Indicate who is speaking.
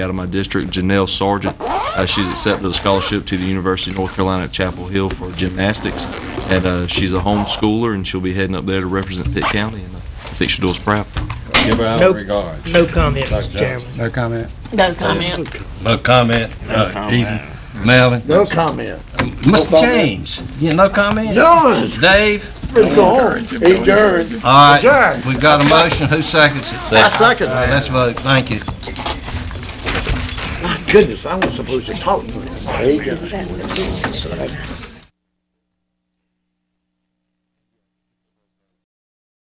Speaker 1: out of my district, Janelle Sargent. Uh, she's accepted a scholarship to the University of North Carolina at Chapel Hill for gymnastics. And uh, she's a homeschooler, and she'll be heading up there to represent Pitt County, and uh, I think she'll do us proud.
Speaker 2: Give her our
Speaker 3: Nope.
Speaker 2: regards.
Speaker 3: No comment, Mr.
Speaker 2: Johnson.
Speaker 3: Chairman.
Speaker 4: No comment.
Speaker 5: No comment.
Speaker 2: No comment, uh, Ethan, Melvin.
Speaker 6: No comment.
Speaker 2: Mr. James, you no comment?
Speaker 6: Jones,
Speaker 2: Dave,
Speaker 6: let's go home. Adjourn.
Speaker 2: all right,
Speaker 6: Adjourned.
Speaker 2: we got a motion, who seconds it?
Speaker 6: I second
Speaker 2: All right, let's
Speaker 6: that.
Speaker 2: vote, thank you.
Speaker 6: Goodness, I wasn't supposed to talk to him.